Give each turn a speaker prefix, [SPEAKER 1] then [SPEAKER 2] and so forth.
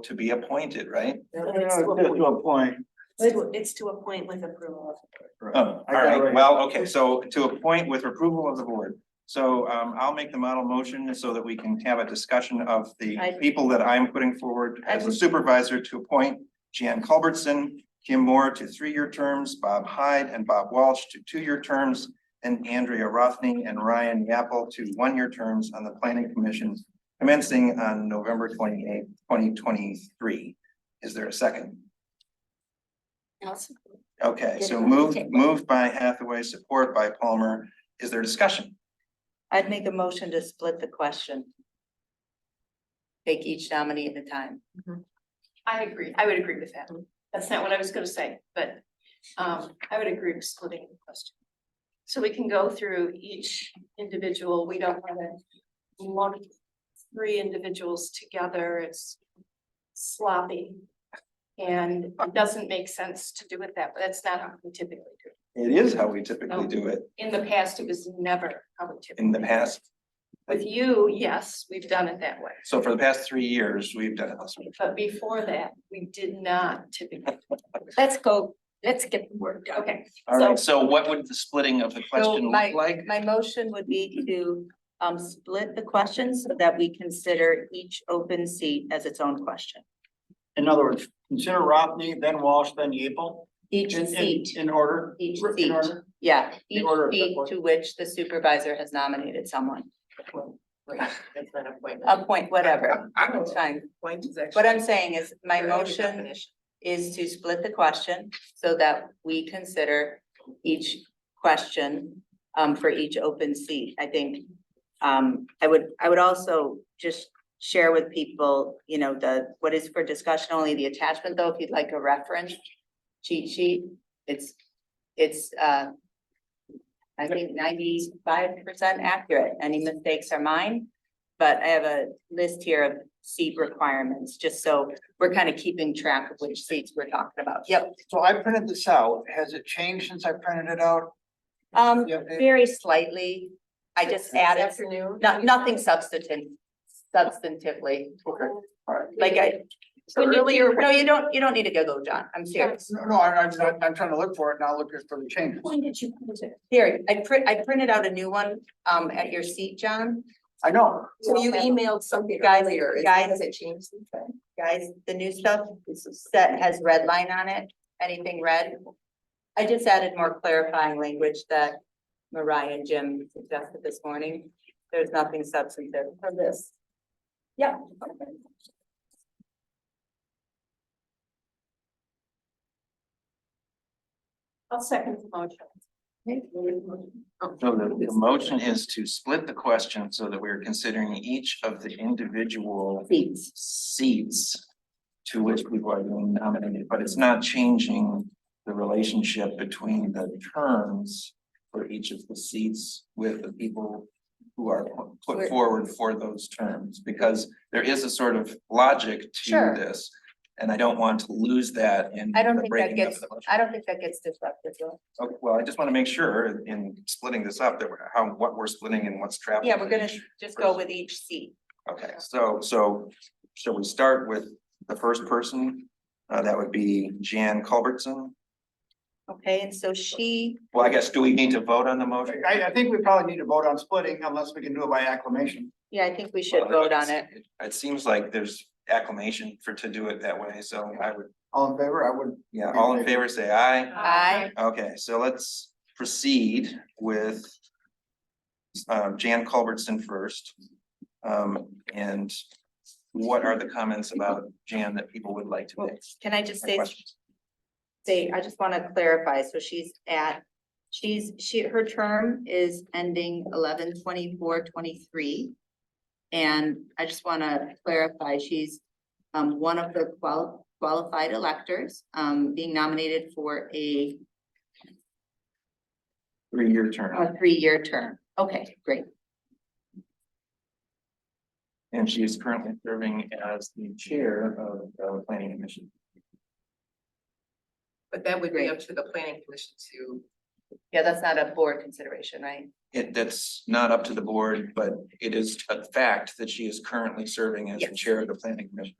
[SPEAKER 1] to be appointed, right?
[SPEAKER 2] It's to a point-
[SPEAKER 3] a point.
[SPEAKER 2] it's to- It's to a point with approval.
[SPEAKER 1] Oh, all
[SPEAKER 3] I got it
[SPEAKER 1] right,
[SPEAKER 3] right.
[SPEAKER 1] well, okay, so to appoint with approval of the board. So um I'll make the model motion so that we can have a discussion of the
[SPEAKER 2] I-
[SPEAKER 1] people that I'm putting forward
[SPEAKER 2] I
[SPEAKER 1] as a
[SPEAKER 2] just-
[SPEAKER 1] supervisor to appoint Jan Culbertson, Kim Moore to three-year terms, Bob Hyde and Bob Walsh to two-year terms, and Andrea Rothney and Ryan Yapple to one-year terms on the planning commission commencing on November twenty-eighth, twenty twenty-three. Is there a second? Okay, so
[SPEAKER 2] Different.
[SPEAKER 1] moved,
[SPEAKER 2] Okay.
[SPEAKER 1] moved by Hathaway, support by Palmer. Is there discussion?
[SPEAKER 2] I'd make a motion to split the question. Take each nominee at a time.
[SPEAKER 4] I agree, I would agree with that. That's not what I was gonna say, but um I would agree with splitting the question. So we can go through each individual, we don't wanna lump three individuals together, it's sloppy. And it doesn't make sense to do it that, way. that's not how we typically do. it.
[SPEAKER 1] It is how we typically do it
[SPEAKER 4] In the past, it was never how we typically.
[SPEAKER 1] in the past.
[SPEAKER 4] With you, yes, we've done it that way,
[SPEAKER 1] So for the past three years, we've done it this way.
[SPEAKER 4] but before that, we did not typically,
[SPEAKER 5] Let's go, let's get the work done.
[SPEAKER 4] okay.
[SPEAKER 1] All right, so what would the splitting of the question
[SPEAKER 2] my-
[SPEAKER 1] look like?
[SPEAKER 2] My motion would be to um split the question so that we consider each open seat as its own question.
[SPEAKER 3] In other words, consider Rothney, then Walsh, then Yeaple.
[SPEAKER 2] Each
[SPEAKER 3] in- in-
[SPEAKER 2] seat,
[SPEAKER 3] In order.
[SPEAKER 2] each
[SPEAKER 3] in
[SPEAKER 2] seat,
[SPEAKER 3] order.
[SPEAKER 2] yeah,
[SPEAKER 3] In
[SPEAKER 2] each
[SPEAKER 3] order of
[SPEAKER 2] seat
[SPEAKER 3] that
[SPEAKER 2] to which the supervisor has nominated someone.
[SPEAKER 6] That's not appointment.
[SPEAKER 2] Appoint whatever, it's fine.
[SPEAKER 6] Appointment is actually.
[SPEAKER 2] What I'm saying is my
[SPEAKER 6] Your own
[SPEAKER 2] motion
[SPEAKER 6] definition.
[SPEAKER 2] is to split the question so that we consider each question um for each open seat. I think um I would, I would also just share with people, you know, the, what is for discussion only, the attachment though, if you'd like a reference cheat sheet, it's, it's uh I think ninety-five percent accurate. Any mistakes are mine. But I have a list here of seat requirements, just so we're kind of keeping track of which seats we're talking about. Yep.
[SPEAKER 3] So I printed this out. Has it changed since I printed it out?
[SPEAKER 2] Um,
[SPEAKER 3] The update?
[SPEAKER 2] very slightly. I just added,
[SPEAKER 6] Afternoon.
[SPEAKER 2] not, nothing substantive, substantively,
[SPEAKER 3] Okay, all right.
[SPEAKER 2] like I. Earlier, no, you don't, you don't need to go, John. I'm serious.
[SPEAKER 3] No, No, I, I'm, not- I'm trying to look for it, not looking for the changes.
[SPEAKER 5] When did you put it?
[SPEAKER 2] Here, I print, I printed out a new one, um, at your seat, John.
[SPEAKER 3] I know.
[SPEAKER 6] So you emailed something
[SPEAKER 2] Guys-
[SPEAKER 6] earlier, is-
[SPEAKER 2] guys-
[SPEAKER 6] has it changed? since then?
[SPEAKER 2] Guys, the new stuff that has red line on it, anything red? I just added more clarifying language that Mariah and Jim suggested this morning. There's nothing substantive for this.
[SPEAKER 5] Yeah.
[SPEAKER 4] I'll second the motion.
[SPEAKER 1] So the, Oh, the motion is to split the question so that we're considering each of the individual
[SPEAKER 2] Seats.
[SPEAKER 1] seats to which people are being nominated, but it's not changing the relationship between the terms for each of the seats with the people who are put- put
[SPEAKER 2] We're-
[SPEAKER 1] forward for those terms, because there is a sort of logic to
[SPEAKER 2] Sure.
[SPEAKER 1] this. And I don't want to lose that in
[SPEAKER 2] I don't
[SPEAKER 1] the
[SPEAKER 2] think that
[SPEAKER 1] breaking up
[SPEAKER 2] gets-
[SPEAKER 1] of the motion.
[SPEAKER 2] I don't think that gets disruptive. though.
[SPEAKER 1] Okay, well, I just want to make sure in splitting this up that we're, how, what we're splitting and what's traveling.
[SPEAKER 2] Yeah, we're gonna just go with each seat.
[SPEAKER 1] Okay, so, so shall we start with the first person? Uh, that would be Jan Culbertson.
[SPEAKER 2] Okay, and so she,
[SPEAKER 1] Well, I guess, do we need to vote on the motion?
[SPEAKER 3] I, I think we probably need to vote on splitting unless we can do it by acclamation.
[SPEAKER 2] yeah, I think we should vote on it.
[SPEAKER 1] It seems like there's acclamation for, to do it that way, so I would,
[SPEAKER 3] All in favor, I would.
[SPEAKER 1] yeah, all in favor, say aye.
[SPEAKER 2] Aye.
[SPEAKER 1] Okay, so let's proceed with um, Jan Culbertson first. Um, and what are the comments about Jan that people would like to
[SPEAKER 2] Well,
[SPEAKER 1] make?
[SPEAKER 2] Can I just say,
[SPEAKER 1] Questions?
[SPEAKER 2] say, I just wanna clarify, so she's at, she's, she, her term is ending eleven twenty-four, twenty-three. And I just wanna clarify, she's um one of the qual- qualified electors, um being nominated for a
[SPEAKER 1] Three-year
[SPEAKER 3] Uh,
[SPEAKER 1] term,
[SPEAKER 2] a three-year term. Okay, great.
[SPEAKER 1] and she is currently serving as the chair of the planning commission.
[SPEAKER 6] But that would be
[SPEAKER 2] Great.
[SPEAKER 6] up to the planning commission to,
[SPEAKER 2] Yeah, that's not a board consideration, right?
[SPEAKER 1] It, that's not up to the board, but it is a fact that she is currently serving as the
[SPEAKER 2] Yes.
[SPEAKER 1] chair of the planning commission.